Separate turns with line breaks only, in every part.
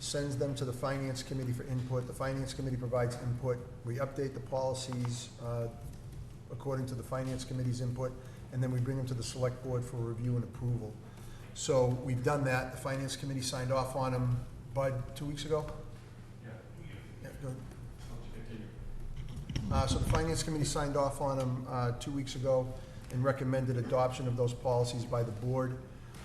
sends them to the Finance Committee for input. The Finance Committee provides input. We update the policies uh, according to the Finance Committee's input, and then we bring them to the Select Board for review and approval. So we've done that. The Finance Committee signed off on them, Bud, two weeks ago? Yeah. go ahead. Uh, So the Finance Committee signed off on them uh, two weeks ago and recommended adoption of those policies by the board.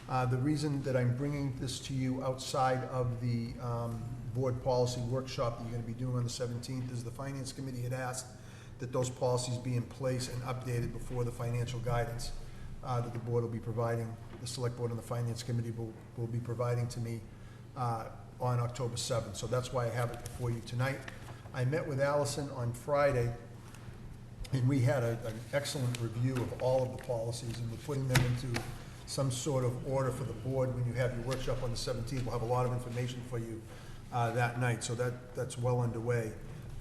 Uh, The reason that I'm bringing this to you outside of the um, board policy workshop that you're going to be doing on the 17th is the Finance Committee had asked that those policies be in place and updated before the financial guidance uh, that the board will be providing, the Select Board and the Finance Committee will, will be providing to me uh, on October 7th. So that's why I have it before you tonight. I met with Allison on Friday, and we had a- an excellent review of all of the policies, and we're putting them into some sort of order for the board. When you have your workshop on the 17th, we'll have a lot of information for you uh, that night, so that, that's well underway.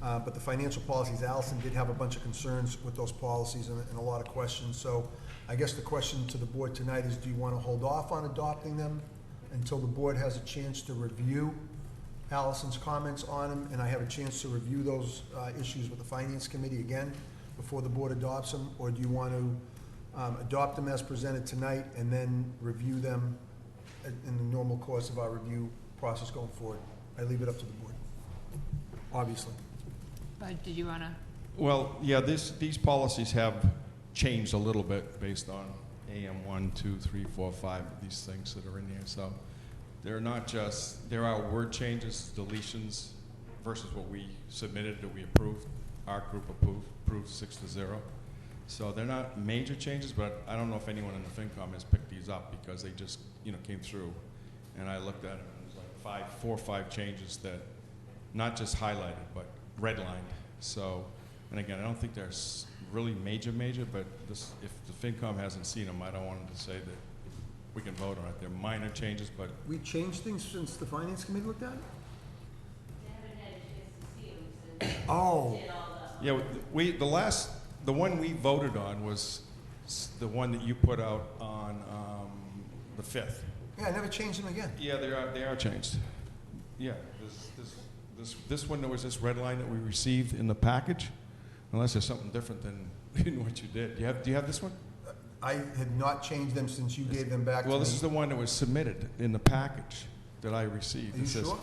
Uh, But the financial policies, Allison did have a bunch of concerns with those policies and and a lot of questions. So I guess the question to the board tonight is, do you want to hold off on adopting them until the board has a chance to review Allison's comments on them, and I have a chance to review those uh, issues with the Finance Committee again before the board adopts them, or do you want to um, adopt them as presented tonight and then review them in in the normal course of our review process going forward? I leave it up to the board, obviously.
Bud, did you want to?
Well, yeah, this, these policies have changed a little bit based on AM one, two, three, four, five, these things that are in here, so they're not just, there are word changes, deletions versus what we submitted that we approved, our group approved, approved six to zero. So they're not major changes, but I don't know if anyone in the FinCom has picked these up because they just, you know, came through. And I looked at them, and it was like five, four or five changes that, not just highlighted, but redlined. So, and again, I don't think they're s- really major, major, but this, if the FinCom hasn't seen them, I don't want them to say that we can vote on it. They're minor changes, but
We changed things since the Finance Committee looked at it? Oh,
Yeah, we, the last, the one we voted on was s- the one that you put out on um, the 5th.
yeah, I never changed them again.
Yeah, they are, they are changed. Yeah, this, this, this, this one, there was this red line that we received in the package, unless there's something different than, than what you did. Do you have, do you have this one?
I had not changed them since you gave them back to me.
Well, this is the one that was submitted in the package that I received.
Are you
It says-
sure?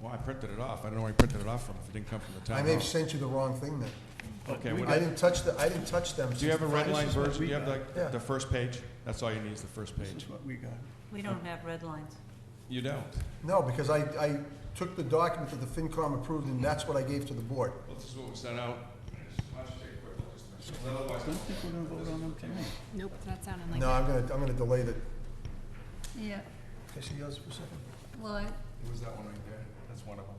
Well, I printed it off. I don't know where I printed it off from, if it didn't come from the
I
town
may have
hall.
sent you the wrong thing then.
Okay,
I
whatever.
didn't touch the, I didn't touch them.
Do you have a red line
since-
version? Do you have
Yeah.
the, the first page? That's all you need is the first page.
We don't have red lines.
You don't.
No, because I, I took the document that the FinCom approved, and that's what I gave to the board.
Well, this is what was sent out. Why don't you take a quick look, just to make sure.
I don't think we're gonna vote on them tonight.
Nope, not sounding like
No,
that.
I'm gonna, I'm gonna delay the,
Yeah,
can I see yours for a second?
well, I,
It was that one right there. That's one of them.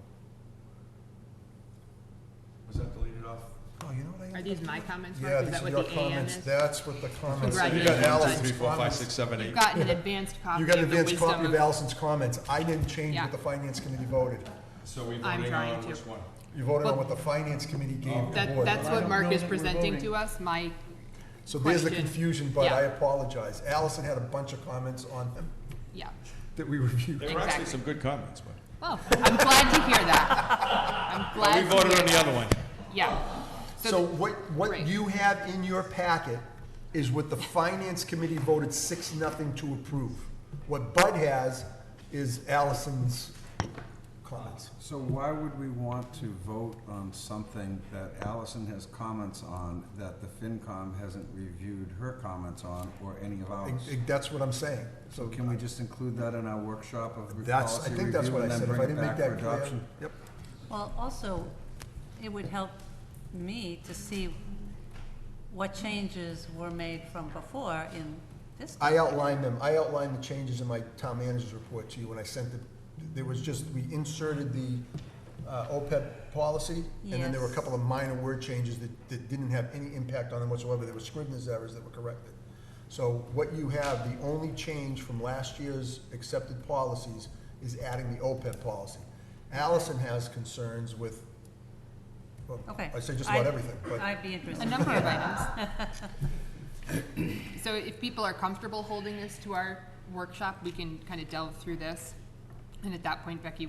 Was that deleted off?
Oh, you know what I?
Are these my comments,
Yeah,
Mark? Is
these
that
are
what
your
the AM
comments.
is?
That's what the comments.
Right.
You got
Yeah.
Allison's
Three, four, five,
comments.
six, seven,
You've
eight.
gotten an advanced copy
You
of
got
the
an
wisdom of...
advanced copy of Allison's comments. I didn't change
Yeah.
what the Finance Committee voted.
So we
I'm
voting
trying
on
to.
which one?
You voted on
Well-
what the Finance Committee gave the
That,
board.
that's
I
what
don't
Mark
know
is
that we're
presenting
voting.
to us, my,
So there's the
question.
confusion, but I
Yeah.
apologize. Allison had a bunch of comments on them
yeah.
that we reviewed.
There were actually
Exactly.
some good comments, but.
Well, I'm glad to hear that. I'm glad
We
to
voted
hear
on the
that.
other one.
Yeah.
So what, what
Right.
you have in your packet is what the finance committee voted six, nothing to approve. What Bud has is Allison's comments.
So why would we want to vote on something that Allison has comments on that the FinCom hasn't reviewed her comments on or any of
I-
ours?
I- That's what I'm saying.
So can we just include that in our workshop of re-
That's, I
policy
think that's
review
what I
and then
said. If I
bring it
didn't make
back for
that clear.
adoption?
Yep.
well, also, it would help me to see what changes were made from before in this.
I outlined them. I outlined the changes in my town manager's report to you when I sent it. There was just, we inserted the uh, OPEB policy, and then there were a
Yes.
couple of minor word changes that, that didn't have any impact on them whatsoever. There were Scrivener's errors that were corrected. So what you have, the only change from last year's accepted policies is adding the OPEB policy. Allison has concerns with, well,
Okay.
I say just about
I'd-
everything, but.
I'd
A
be interested.
number of items. So if people are comfortable holding this to our workshop, we can kind of delve through this. And at that point, Becky,